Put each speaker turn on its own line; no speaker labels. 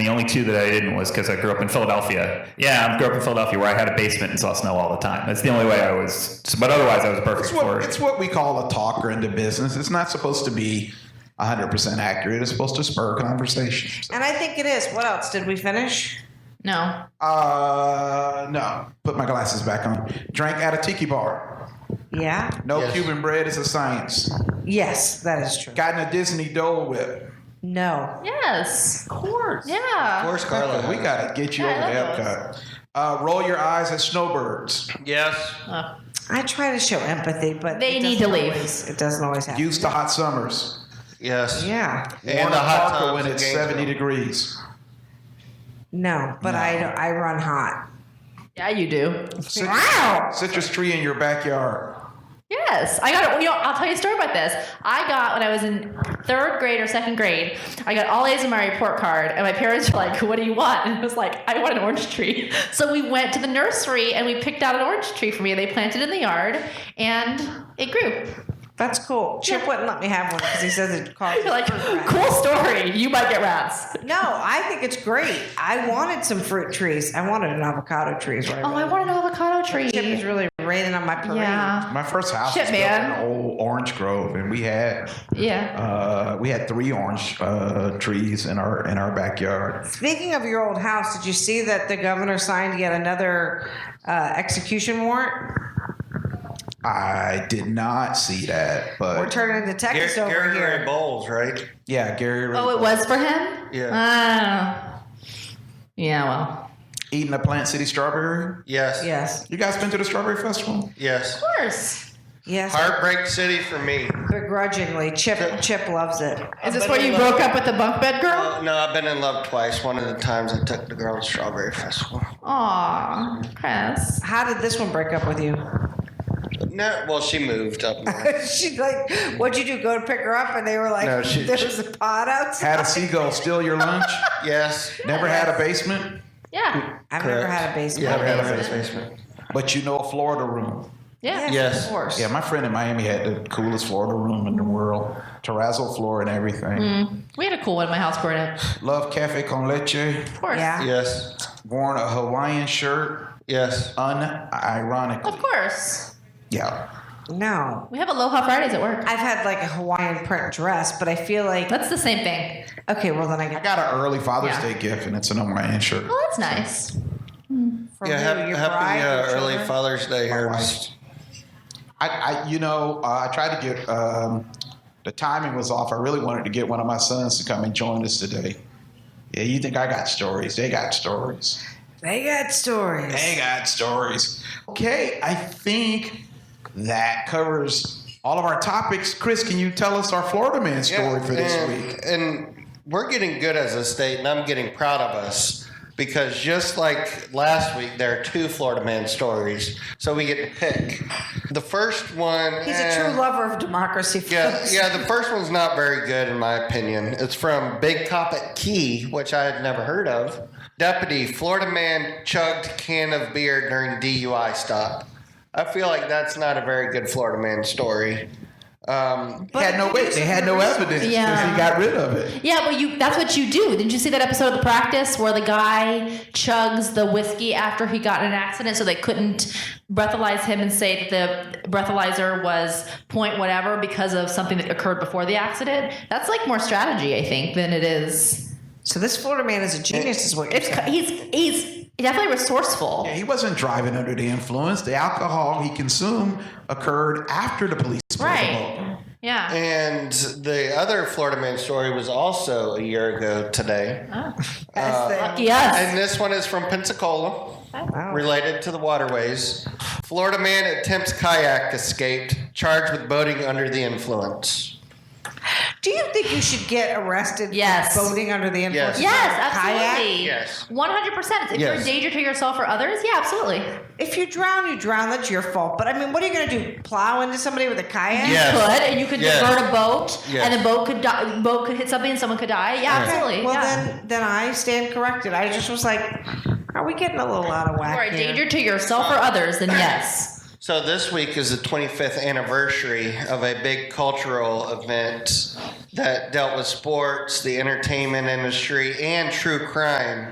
the only two that I didn't was because I grew up in Philadelphia. Yeah, I grew up in Philadelphia where I had a basement and saw snow all the time. That's the only way I was. But otherwise, I was perfect
It's
for
what,
it.
it's what we call a talker into business. It's not supposed to be 100% accurate. It's supposed to spur conversations.
And I think it is. What else? Did we finish?
No.
Uh, no. Put my glasses back on. Drank at a tiki bar.
Yeah.
No
Yes.
Cuban bread is a science.
Yes, that is true.
Got in a Disney Dole Whip.
No.
Yes.
Of course.
Of
Yeah.
course, Carla.
we gotta get you
Yeah, I
over to
love
Epcot. Uh, roll your eyes at snowbirds.
Yes.
Oh.
I try to show empathy, but
They
it
need
doesn't
to leave.
always- it doesn't always happen.
Used to hot summers.
Yes.
yeah.
And
Warm
the hot
Parker
times
when
in
it's
Gainesville.
seventy degrees.
No, but I I run hot.
Yeah, you do.
Citrus,
Wow.
citrus tree in your backyard.
Yes, I got. You know, I'll tell you a story about this. I got when I was in third grade or second grade. I got all A's in my report card, and my parents were like, "What do you want?" And I was like, "I want an orange tree." So we went to the nursery and we picked out an orange tree for me. They planted it in the yard, and it grew.
That's cool. Chip wouldn't let me have one because he says it causes
You're like,
fruit rats.
"Cool story. You might get rats."
No, I think it's great. I wanted some fruit trees. I wanted an avocado tree. Is what I
Oh, I
wanted.
want an avocado tree.
Chip is really raining on my parade.
Yeah,
My first house
Shit,
was built
man.
in an old orange grove, and we had
yeah.
uh, we had three orange uh, trees in our in our backyard.
Speaking of your old house, did you see that the governor signed yet another uh, execution warrant?
I did not see that, but
We're turning to
Gary,
Texas over
Gary, Gary
here.
Bowles, right?
yeah, Gary Ray-
Oh, it was for him.
Yeah.
Oh. Yeah. Well.
eating a Plant City strawberry.
Yes.
Yes,
You guys been to the strawberry festival?
Yes.
Of course.
yes.
Heartbreak City for me.
Begrudgingly, Chip Chip loves it.
Is this
But
where
I
you
love-
broke up with the bunk bed girl?
Uh, no, I've been in love twice. One of the times I took the girl to Strawberry Festival.
Aw, Chris.
How did this one break up with you?
No, well, she moved up north.
She's like, "What'd you do? Go to pick her up?" And they were like,
No, she-
"There was a pot outside."
Had a seagull steal your lunch?
yes.
Never had a basement,
Yeah.
I've never
Correct.
had a basement.
Yeah, I've had a basement.
but you know a Florida room.
Yeah.
Yes.
Of course.
Yeah, my friend in Miami had the coolest Florida room in the world, terrazzo floor and everything.
We had a cool one in my house growing up. Of
Love cafe con leche.
course.
Yeah.
Yes.
Worn a Hawaiian shirt,
Yes.
unironically.
Of course.
Yeah.
No.
We have Aloha Fridays at work.
I've had like a Hawaiian print dress, but I feel like
That's the same thing.
okay. Well, then I
I
got
got an early Father's
Yeah.
Day gift, and it's an Hawaiian shirt.
Well, Oh, that's nice.
from
Yeah.
who?
hap-
your
happy
bride, your
uh, early
children?
Father's Day, Herbs.
I, I you know, uh, I tried to get. Um, the timing was off. I really wanted to get one of my sons to come and join us today. Yeah, you think I got stories? They got stories.
They got stories.
They got stories. Okay, I think that covers all of our topics. Chris, can you tell us our Florida man story for this
and,
week?
And we're getting good as a state, and I'm getting proud of us because just like last week, there are two Florida man stories, so we get to pick. The first one.
He's
eh,
a true lover of democracy.
Yeah,
folks.
yeah. The first one's not very good, in my opinion. It's from Big Top at Key, which I had never heard of. Deputy Florida man chugged can of beer during DUI stop. I feel like that's not a very good Florida man story. Um,
had no wait. They had no evidence because
Yeah.
he got rid of it.
Yeah, but you that's what you do. Didn't you see that episode of The Practice where the guy chugs the whiskey after he got in an accident so they couldn't breathalyze him and say that the breathalyzer was point whatever because of something that occurred before the accident? That's like more strategy, I think, than it is.
So this Florida man is a genius, is what you're
It's
saying.
he's he's definitely resourceful.
Yeah, he wasn't driving under the influence. The alcohol he consumed occurred after the police pulled him over.
Right. Yeah.
And the other Florida man story was also a year ago today. Uh,
That's the-
Lucky us.
And this one is from Pensacola,
Wow.
related to the waterways. Florida man attempts kayak escape, charged with boating under the influence.
Do you think you should get arrested
Yes.
for boating under the influence?
Yes.
of
Yes,
a Kayak?
absolutely.
Yes.
One hundred percent. If you're
Yes.
a danger to yourself or others, yeah, absolutely.
If you drown, you drown. That's your fault. But I mean, what are you going to do? Plow into somebody with a kayak?
Yes.
Could and you could
Yes.
divert a boat,
Yes.
and the boat could die, boat could hit something, and someone could die. Yeah,
Okay,
absolutely.
Well,
yeah.
then, then I stand corrected. I just was like, are we getting a little out of whack?
If you're a
here?
danger to yourself or others, then yes.
So this week is the 25th anniversary of a big cultural event that dealt with sports, the entertainment industry, and true crime.